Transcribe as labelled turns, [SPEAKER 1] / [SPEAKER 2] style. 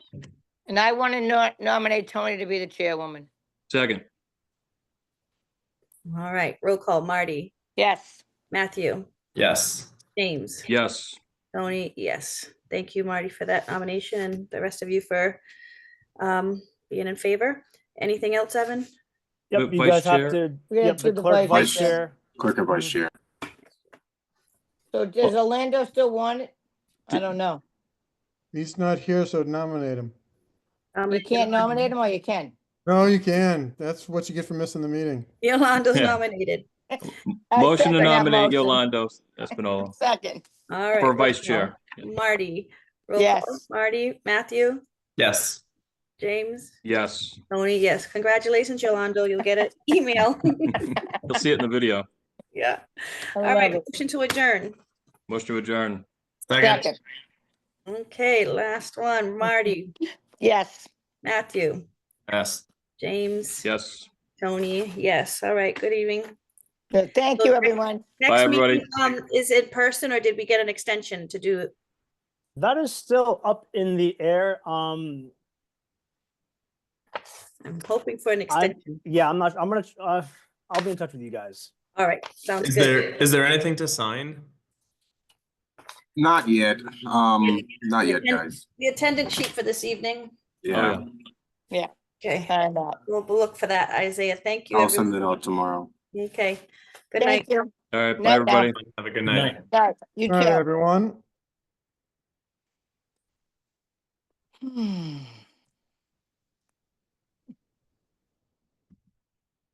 [SPEAKER 1] And I want to nominate Tony to be the chairwoman.
[SPEAKER 2] Second,
[SPEAKER 3] All right, roll call, Marty,
[SPEAKER 1] Yes,
[SPEAKER 3] Matthew,
[SPEAKER 4] Yes.
[SPEAKER 3] James,
[SPEAKER 2] yes.
[SPEAKER 3] Tony, yes. Thank you, Marty, for that nomination, and the rest of you for um, being in favor. Anything else, Evan?
[SPEAKER 2] But
[SPEAKER 5] Yep, you
[SPEAKER 2] vice
[SPEAKER 5] guys
[SPEAKER 2] chair?
[SPEAKER 5] have to,
[SPEAKER 1] We gotta
[SPEAKER 5] yep,
[SPEAKER 1] do
[SPEAKER 5] the
[SPEAKER 1] the
[SPEAKER 5] clerk,
[SPEAKER 1] vice
[SPEAKER 5] vice
[SPEAKER 1] chair.
[SPEAKER 5] chair.
[SPEAKER 6] Clerk or vice chair?
[SPEAKER 1] so does Orlando still want it? I don't know.
[SPEAKER 7] He's not here, so nominate him.
[SPEAKER 3] Um,
[SPEAKER 1] You can't nominate him or you can?
[SPEAKER 7] No, you can. That's what you get for missing the meeting.
[SPEAKER 3] Yolanda's
[SPEAKER 2] Yeah.
[SPEAKER 3] nominated.
[SPEAKER 1] I
[SPEAKER 2] Motion to
[SPEAKER 1] second that
[SPEAKER 2] nominate
[SPEAKER 1] motion.
[SPEAKER 2] Yolando Espinola
[SPEAKER 1] Second,
[SPEAKER 3] All right.
[SPEAKER 2] for
[SPEAKER 3] roll
[SPEAKER 2] vice
[SPEAKER 3] call,
[SPEAKER 2] chair.
[SPEAKER 3] Marty. roll call,
[SPEAKER 1] Yes.
[SPEAKER 3] Marty, Matthew,
[SPEAKER 4] Yes.
[SPEAKER 3] James,
[SPEAKER 2] Yes,
[SPEAKER 3] Tony, yes. Congratulations, Yolanda. You'll get an email.
[SPEAKER 2] you'll see it in the video.
[SPEAKER 3] Yeah.
[SPEAKER 1] I
[SPEAKER 3] All right,
[SPEAKER 1] love it.
[SPEAKER 3] motion to adjourn.
[SPEAKER 2] Motion to adjourn.
[SPEAKER 4] Second.
[SPEAKER 1] Second,
[SPEAKER 3] Okay, last one, Marty,
[SPEAKER 1] yes.
[SPEAKER 3] Matthew,
[SPEAKER 4] Yes.
[SPEAKER 3] James,
[SPEAKER 2] Yes.
[SPEAKER 3] Tony, yes. All right, good evening.
[SPEAKER 1] Good. Thank you, everyone.
[SPEAKER 2] Bye,
[SPEAKER 3] Next
[SPEAKER 2] everybody.
[SPEAKER 3] meeting, um, is in person or did we get an extension to do?
[SPEAKER 5] That is still up in the air. Um,
[SPEAKER 3] I'm hoping for an
[SPEAKER 5] I-
[SPEAKER 3] extension.
[SPEAKER 5] yeah, I'm not, I'm gonna, uh, I'll be in touch with you guys.
[SPEAKER 3] All right, sounds
[SPEAKER 4] Is
[SPEAKER 3] good.
[SPEAKER 4] there, is there anything to sign?
[SPEAKER 6] Not yet. Um, not yet, guys.
[SPEAKER 3] The attendance sheet for this evening.
[SPEAKER 2] Oh,
[SPEAKER 6] Yeah,
[SPEAKER 3] Okay,
[SPEAKER 1] Sign up.
[SPEAKER 3] we'll we'll look for that, Isaiah. Thank you.
[SPEAKER 6] I'll send it
[SPEAKER 3] everyone.
[SPEAKER 6] out tomorrow.
[SPEAKER 3] Okay, good night.
[SPEAKER 1] Thank you.
[SPEAKER 2] All right,
[SPEAKER 1] Night,
[SPEAKER 2] bye,
[SPEAKER 1] now.
[SPEAKER 2] everybody.
[SPEAKER 4] Have a good night.
[SPEAKER 1] Bye. You
[SPEAKER 7] All right,
[SPEAKER 1] too.
[SPEAKER 7] everyone.
[SPEAKER 1] Hmm.